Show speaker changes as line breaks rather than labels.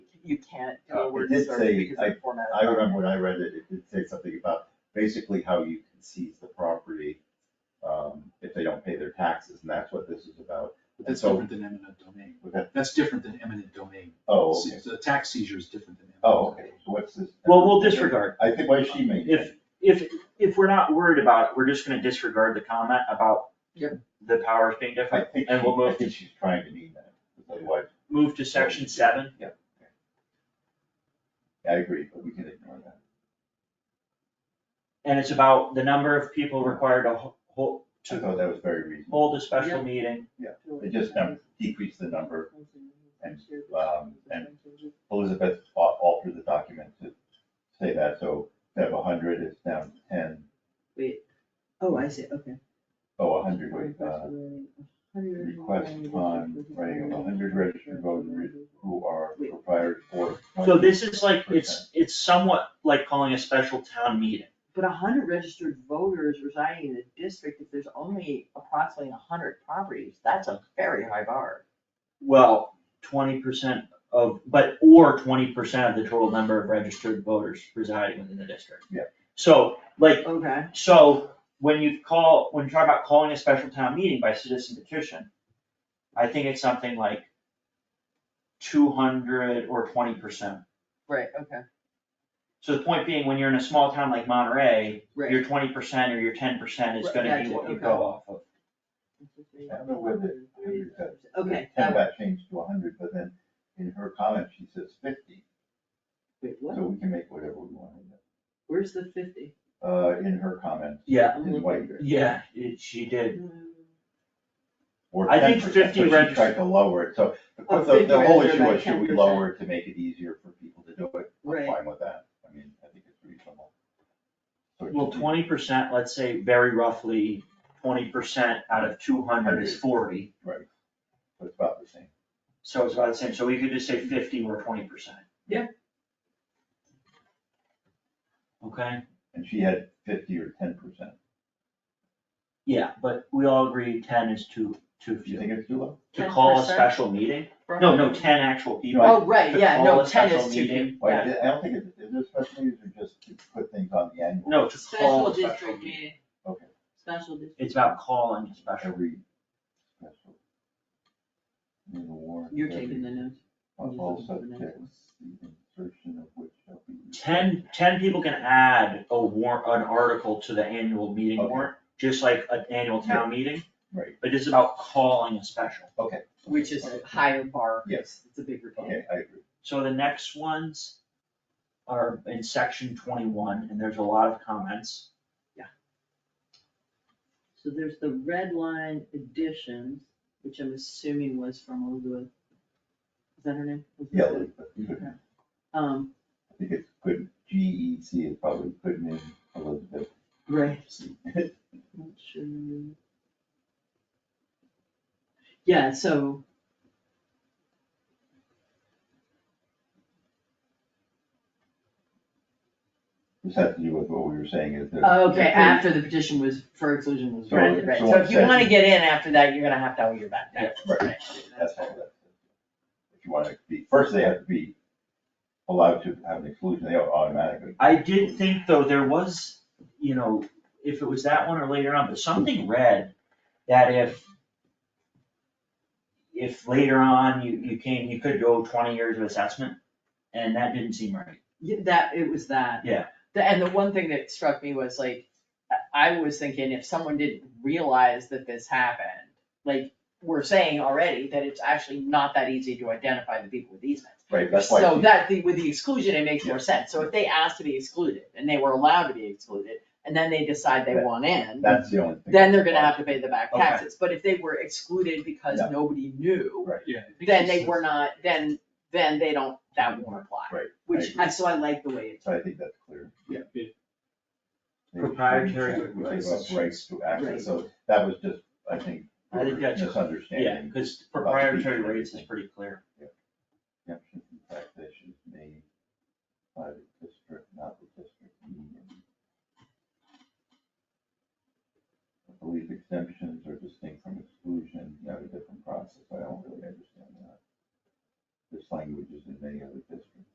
you can't do
Uh,
a
it
word
did
search
say-
because of the format.
I remember when I read it, it did say something about basically how you can seize the property um, if they don't pay their taxes, and that's what this is about.
But that's
So-
different than eminent domain.
Was that-
That's different than eminent domain.
Oh, okay.
The tax seizure is different than. eminent
Oh,
domain.
okay, so what's this?
Well, we'll disregard.
I think why she made.
If, if, if we're not worried about it, we're just gonna disregard the comment about
Yep.
the powers being different.
I think, she-
And we'll move
I think she's trying to mean that, otherwise,
Move to section seven.
I agree, but we can ignore that.
And it's about the number of people required to hold,
I
to
thought that was very reasonable.
hold a special
Yeah.
meeting.
It just um, decreased the number. um, and- Elizabeth al- altered the document to say that, so instead of a hundred, it's down to ten.
Oh, I see, okay.
Oh, a hundred, wait, uh, request upon writing of a hundred registered voters who are proprietors or.
So this is like, it's, it's somewhat like calling a special town meeting.
But a hundred registered voters residing in the district, if there's only approximately a hundred properties, that's a very high bar.
Well, twenty percent of, but, or twenty percent of the total number of registered voters residing within the district.
Yeah.
So, like,
Okay.
So when you call, when you talk about calling a special town meeting by citizen petition, I think it's something like two hundred or twenty percent.
Right, okay,
So the point being, when you're in a small town like Monterey,
right.
your twenty percent or your ten percent is
Right,
gonna be
gotcha,
what you
okay.
go off of.
I don't know whether a hundred got.
Okay,
Ten
got
uh,
it.
got changed to a hundred, but then in her comment, she says fifty,
Wait, what,
so we can make whatever we want. with it.
where's the fifty?
Uh, in her comment.
Yeah.
I'm
In
looking.
white.
Yeah, it, she did.
or
I think
10%,
50
but she
regis-
Tried to lower it, so the-
Oh,
the,
50
the whole
registered
issue
by
was, should we
10%.
lower it to make it easier for people to do it?
Right.
I'm fine with that, I mean, I think it's reasonable. So it
Well,
should be-
twenty percent, let's say very roughly twenty percent out of two hundred is forty.
Right, so it's about the same.
So it's about the same. So we could just say fifty or twenty percent.
Yeah.
Okay.
And she had fifty or ten percent.
Yeah, but we all agree ten is too, too
Do you
few.
think it's too low?
To call a
10%?
special meeting? No, no, ten actual people.
Oh, right, yeah, no,
To call a
ten
special
is too
meeting.
few,
Why,
yeah.
I don't think it's, is there special needs or just to put things on the annual?
No, to call
Special
a special
district
meeting.
meeting,
Okay,
special district.
It's about calling a special.
every special. In the warrant.
You're
every-
taking the notes.
Of all
You're looking for the next
subjects, the insertion of which shall be.
Ten, ten people can add a warrant, an article to the annual meeting
Okay.
warrant, just like an annual town meeting,
Right,
but it's about calling a special.
okay.
Which is a higher bar.
Yes.
It's a bigger bar.
Okay, I agree.
So the next ones are in section twenty-one, and there's a lot of comments.
So there's the red line additions, which I'm assuming was from Elizabeth. Is that her name?
Yeah,
Elizabeth?
Elizabeth, good.
Um,
I think it's good, G E C is probably good name, Elizabeth.
right. Not sure. Yeah, so.
This has to do with what we were saying is that.
Okay,
if they-
after the petition was, for exclusion was
So-
granted, right,
so
so if you
what-
wanna get in after that, you're gonna have to hold your back.
Yeah,
Right, that's all that. If you want to be, first they have to be allowed to have an exclusion, they automatically.
I did think though, there was, you know, if it was that one or later on, but something read that if if later on you, you came, you could go twenty years of assessment, and that didn't seem right.
Yeah, that, it was that.
Yeah.
The- And the one thing that struck me was like, I- I was thinking if someone didn't realize that this happened, like, we're saying already that it's actually not that easy to identify the people with easements.
Right, that's why.
So
she-
that, the- with the exclusion, it makes more sense, so if they asked to be excluded, and they were allowed to be excluded, and then they decide they
That-
want in,
That's the only thing.
then they're gonna have to pay the back
Okay.
taxes, but if they were excluded because
No.
nobody knew,
Yeah. I think
then
it
they
says-
were not, then, then they don't, that won't apply.
Right, I
Which,
agree.
I so I like the way it's.
So I think that's clear.
Yeah, it-
They- they
Proprietary
gave up
rights.
Rights to access,
Right.
so that was just, I think,
I think that's-
misunderstanding.
Yeah, because proprietary rates is pretty clear.
Exemption